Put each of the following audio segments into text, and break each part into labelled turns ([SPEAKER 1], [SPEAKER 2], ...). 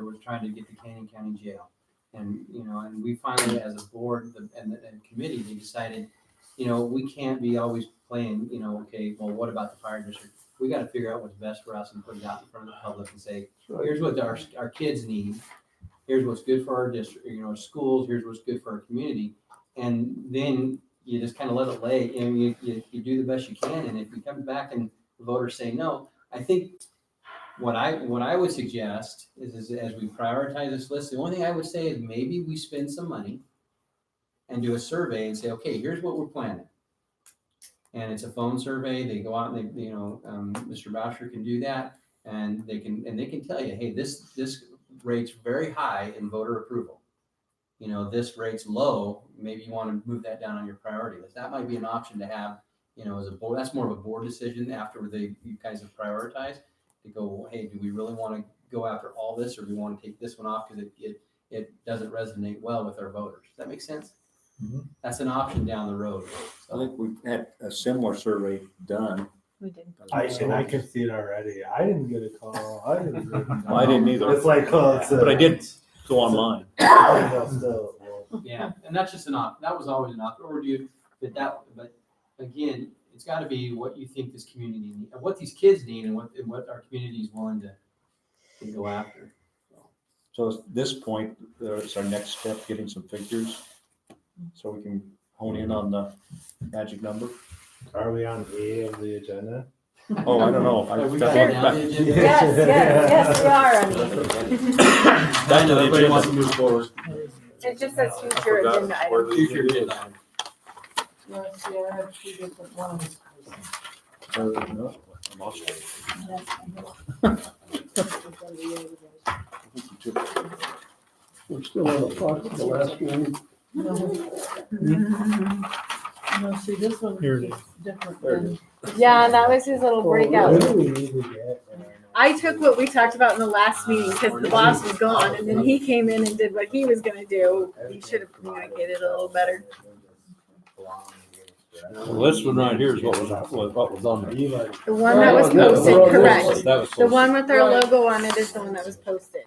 [SPEAKER 1] were trying to get to Canyon County Jail. And, you know, and we finally, as a board the- and, the- and committee, we decided, you know, we can't be always playing, you know, okay, well, what about the fire district? We gotta figure out what's best for us and put it out in front of the public and say, here's what our, our kids need. Here's what's good for our district, you know, our schools, here's what's good for our community. And then you just kind of let it lay, and you, you, you do the best you can, and if you come back and the voters say no, I think what I, what I would suggest is, is as we prioritize this list, the only thing I would say is maybe we spend some money and do a survey and say, okay, here's what we're planning. And it's a phone survey, they go out and they, you know, um, Mr. Boucher can do that. And they can, and they can tell you, hey, this, this rates very high in voter approval. You know, this rates low, maybe you want to move that down on your priority list. That might be an option to have, you know, as a board, that's more of a board decision after they, you guys have prioritized. To go, well, hey, do we really want to go after all this or do we want to take this one off because it, it, it doesn't resonate well with our voters? Does that make sense?
[SPEAKER 2] Mhm.
[SPEAKER 1] That's an option down the road.
[SPEAKER 3] I
[SPEAKER 1] So,
[SPEAKER 3] think we've had a similar survey done.
[SPEAKER 4] We did.
[SPEAKER 5] I and I could see it already. I didn't get a call. I didn't. Get a call.
[SPEAKER 3] I didn't either.
[SPEAKER 5] It's like, oh, it's a,
[SPEAKER 3] But I did go online.
[SPEAKER 5] Well, still, well,
[SPEAKER 1] Yeah, and that's just an op, that was always an option, or do you, but that, but again, it's gotta be what you think this community need, and what these kids need and what, and what our community is willing to, to go after.
[SPEAKER 3] So at this point, there's our next step, getting some figures. So we can hone in on the magic number.
[SPEAKER 5] Are we on E of the agenda?
[SPEAKER 3] Oh, I don't know.
[SPEAKER 1] Have we
[SPEAKER 3] I-
[SPEAKER 1] got it down the agenda?
[SPEAKER 5] Yeah.
[SPEAKER 4] Yes, yes, yes, we are on
[SPEAKER 3] Back to
[SPEAKER 1] I know
[SPEAKER 3] the
[SPEAKER 1] everybody wants to
[SPEAKER 3] agenda.
[SPEAKER 1] move forward.
[SPEAKER 4] these. It just says future
[SPEAKER 3] Forgot
[SPEAKER 4] agenda
[SPEAKER 3] where
[SPEAKER 4] item.
[SPEAKER 3] the
[SPEAKER 1] Future
[SPEAKER 3] agenda is.
[SPEAKER 1] agenda item.
[SPEAKER 3] Uh, no, I lost it. I think you took it.
[SPEAKER 2] We're still on the clock for the last one.
[SPEAKER 6] No, see, this one
[SPEAKER 2] Here it
[SPEAKER 6] is different
[SPEAKER 3] There it
[SPEAKER 6] than,
[SPEAKER 4] Yeah, that was his little
[SPEAKER 5] What
[SPEAKER 4] breakout.
[SPEAKER 5] do we need to get?
[SPEAKER 4] I took what we talked about in the last meeting because the boss was gone and then he came in and did what he was gonna do. He should have communicated a little better.
[SPEAKER 7] Well, this one right here is what was, was what was on the.
[SPEAKER 5] Eli,
[SPEAKER 4] The one that was posted, correct.
[SPEAKER 7] That was.
[SPEAKER 4] The one
[SPEAKER 7] posted.
[SPEAKER 4] with our logo on it is the one that was posted.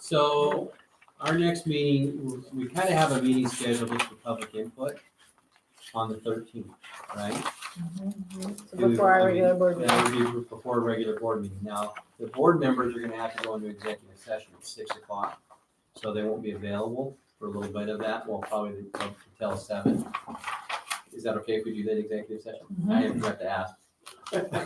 [SPEAKER 1] So our next meeting, we kind of have a meeting scheduled just for public input on the thirteenth, right?
[SPEAKER 4] So Mm-hmm. Before our regular board meeting.
[SPEAKER 1] That would be before a regular board meeting. Now, the board members are gonna have to go into executive session at six o'clock. So they won't be available for a little bit of that. Well, probably until seven. Is that okay if we do that executive session?
[SPEAKER 4] Mm-hmm.
[SPEAKER 1] I forgot to ask.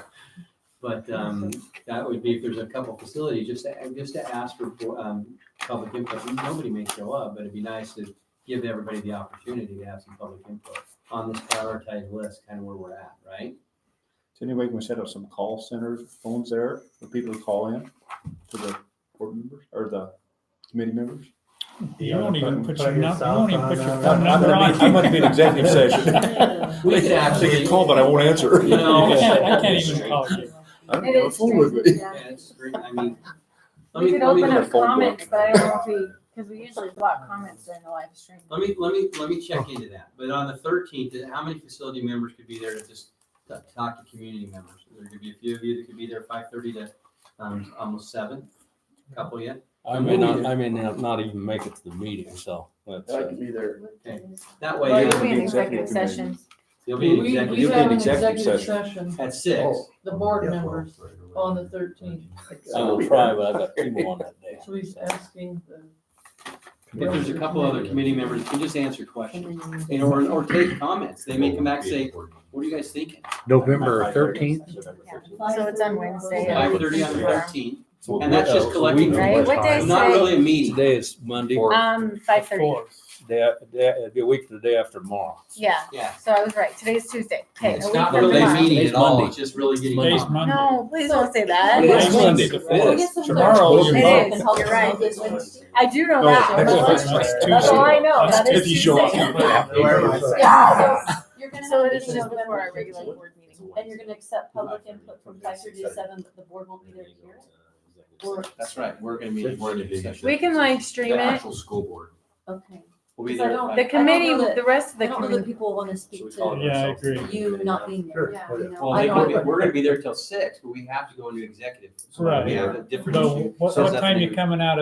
[SPEAKER 1] But, um, that would be if there's a couple facilities, just to, just to ask for, um, public input. Nobody may show up, but it'd be nice to give everybody the opportunity to have some public input on this prioritized list, kind of where we're at, right?
[SPEAKER 3] Is there any way we can set up some call centers, phones there for people to call in to the board members or the committee members?
[SPEAKER 5] you
[SPEAKER 8] You won't
[SPEAKER 5] wanna
[SPEAKER 8] even put your, num- you
[SPEAKER 5] yourself
[SPEAKER 8] won't even put your
[SPEAKER 5] on,
[SPEAKER 8] phone
[SPEAKER 5] uh,
[SPEAKER 3] I'm
[SPEAKER 8] number
[SPEAKER 3] gonna
[SPEAKER 8] on.
[SPEAKER 3] be, I'm gonna be in executive session.
[SPEAKER 1] We could
[SPEAKER 3] They
[SPEAKER 1] actually.
[SPEAKER 3] can call, but I won't answer.
[SPEAKER 1] You know-
[SPEAKER 8] I can't, I can't even call you.
[SPEAKER 3] I don't
[SPEAKER 4] It
[SPEAKER 3] have a
[SPEAKER 4] is
[SPEAKER 3] phone with
[SPEAKER 4] strange,
[SPEAKER 3] me.
[SPEAKER 4] yeah.
[SPEAKER 1] Yeah, it's great. I mean, let
[SPEAKER 4] We
[SPEAKER 1] me,
[SPEAKER 4] could
[SPEAKER 1] let me,
[SPEAKER 4] open
[SPEAKER 3] look at
[SPEAKER 4] up
[SPEAKER 3] the phone book.
[SPEAKER 4] comments, but I don't see, because we usually block comments during the live stream.
[SPEAKER 1] let me, let me, let me check into that. But on the thirteenth, how many facility members could be there to just t- talk to community members? There could be a few of you that could be there five thirty to, um, almost seven, a couple yet.
[SPEAKER 7] I may not, I may not not even make it to the meeting, so. that's, uh,
[SPEAKER 2] be there.
[SPEAKER 1] That
[SPEAKER 4] Well,
[SPEAKER 1] way,
[SPEAKER 4] you'll
[SPEAKER 1] you'll
[SPEAKER 4] be in
[SPEAKER 1] be-
[SPEAKER 4] executive
[SPEAKER 3] executive committee.
[SPEAKER 4] session.
[SPEAKER 1] you'll be
[SPEAKER 6] We,
[SPEAKER 1] in
[SPEAKER 6] we have
[SPEAKER 3] You'll be in
[SPEAKER 6] an
[SPEAKER 1] executive
[SPEAKER 3] executive
[SPEAKER 6] executive
[SPEAKER 3] session.
[SPEAKER 6] session,
[SPEAKER 1] at six.
[SPEAKER 2] Oh.
[SPEAKER 6] the board members, on the thirteenth.
[SPEAKER 7] I will try, but I've got people on that day.
[SPEAKER 6] So he's asking the.
[SPEAKER 1] If there's a couple other committee members, you can just answer questions, and or, or take comments. They may come back and say, what are you guys thinking?
[SPEAKER 2] November thirteenth?
[SPEAKER 4] So it's on Wednesday.
[SPEAKER 7] Yeah.
[SPEAKER 1] Five thirty on the thirteenth,
[SPEAKER 7] So
[SPEAKER 1] and that's just
[SPEAKER 7] we-
[SPEAKER 1] collecting.
[SPEAKER 4] Right, what day is
[SPEAKER 1] Not
[SPEAKER 4] today?
[SPEAKER 1] really a meeting.
[SPEAKER 7] Today is Monday,
[SPEAKER 4] Um, five thirty,
[SPEAKER 7] day, day, it'd be a week to the day after tomorrow.
[SPEAKER 4] yeah,
[SPEAKER 1] Yeah.
[SPEAKER 4] so I was right, today's Tuesday, okay. a
[SPEAKER 1] It's
[SPEAKER 4] week
[SPEAKER 1] not
[SPEAKER 4] from
[SPEAKER 7] really
[SPEAKER 1] really
[SPEAKER 7] a
[SPEAKER 4] tomorrow.
[SPEAKER 7] meeting
[SPEAKER 1] meeting at
[SPEAKER 7] at all,
[SPEAKER 1] all,
[SPEAKER 7] it's
[SPEAKER 1] it's just really getting.
[SPEAKER 8] Today's Monday.
[SPEAKER 4] No, please don't say
[SPEAKER 7] Today's
[SPEAKER 4] that.
[SPEAKER 7] Monday, the fifth.
[SPEAKER 8] Tomorrow,
[SPEAKER 4] It
[SPEAKER 8] you're.
[SPEAKER 4] is, you're right, I do know
[SPEAKER 3] No,
[SPEAKER 4] that.
[SPEAKER 3] that's-
[SPEAKER 4] That's
[SPEAKER 8] that's
[SPEAKER 4] all I know,
[SPEAKER 3] That's
[SPEAKER 4] that is
[SPEAKER 3] if you show up.
[SPEAKER 4] Tuesday.
[SPEAKER 6] Yeah,
[SPEAKER 4] so
[SPEAKER 9] You're gonna
[SPEAKER 4] So
[SPEAKER 9] have
[SPEAKER 4] it
[SPEAKER 9] a
[SPEAKER 4] is
[SPEAKER 9] meeting
[SPEAKER 4] just before
[SPEAKER 9] November
[SPEAKER 4] our regular
[SPEAKER 9] fifteenth,
[SPEAKER 4] board meeting.
[SPEAKER 9] and you're gonna accept public input from five thirty to seven, but the board won't be there to hear it? Or,
[SPEAKER 1] That's right, we're gonna meet. in executive session.
[SPEAKER 4] We can live stream it,
[SPEAKER 7] school board.
[SPEAKER 9] okay.
[SPEAKER 1] We'll be
[SPEAKER 9] Because I
[SPEAKER 1] there.
[SPEAKER 9] don't-
[SPEAKER 1] at
[SPEAKER 4] the
[SPEAKER 1] five.
[SPEAKER 4] committee,
[SPEAKER 9] know that-
[SPEAKER 4] the rest of
[SPEAKER 9] I
[SPEAKER 4] the
[SPEAKER 9] don't know that
[SPEAKER 4] committee.
[SPEAKER 9] people wanna speak to
[SPEAKER 8] Yeah, I agree.
[SPEAKER 9] you not being there,
[SPEAKER 5] Sure.
[SPEAKER 9] you know?
[SPEAKER 1] Well,
[SPEAKER 9] I
[SPEAKER 1] they could
[SPEAKER 9] don't-
[SPEAKER 1] be, we're gonna be there till six, but we have to go into executive. So we
[SPEAKER 8] Right.
[SPEAKER 1] have a different
[SPEAKER 8] But
[SPEAKER 1] issue.
[SPEAKER 8] what,
[SPEAKER 1] So
[SPEAKER 8] what
[SPEAKER 1] that's
[SPEAKER 8] time
[SPEAKER 1] the-
[SPEAKER 8] you coming out